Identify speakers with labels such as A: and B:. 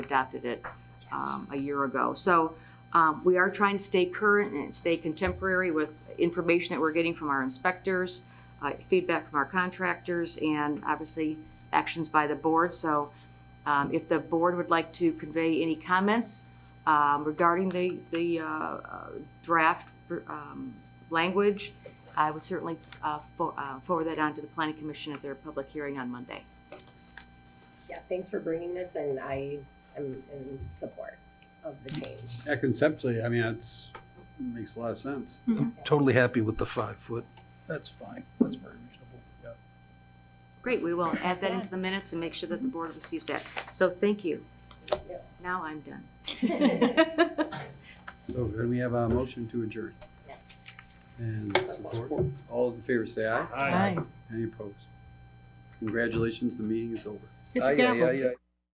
A: adopted it um, a year ago. So um, we are trying to stay current and stay contemporary with information that we're getting from our inspectors, uh, feedback from our contractors, and obviously actions by the board. So um, if the board would like to convey any comments um, regarding the, the uh, uh, draft um, language, I would certainly uh, fo- uh, forward that on to the planning commission at their public hearing on Monday.
B: Yeah, thanks for bringing this and I am in support of the change.
C: Yeah, conceptually, I mean, it's, makes a lot of sense.
D: I'm totally happy with the five foot. That's fine. That's very reasonable.
A: Great, we will add that into the minutes and make sure that the board receives that. So thank you. Now I'm done.
C: So then we have a motion to adjourn
B: Yes.
C: and support. All those in favor say aye.
E: Aye.
C: Any opposed? Congratulations, the meeting is over.
E: Hit the
D: Aye, aye,
E: gavel.
D: aye, aye.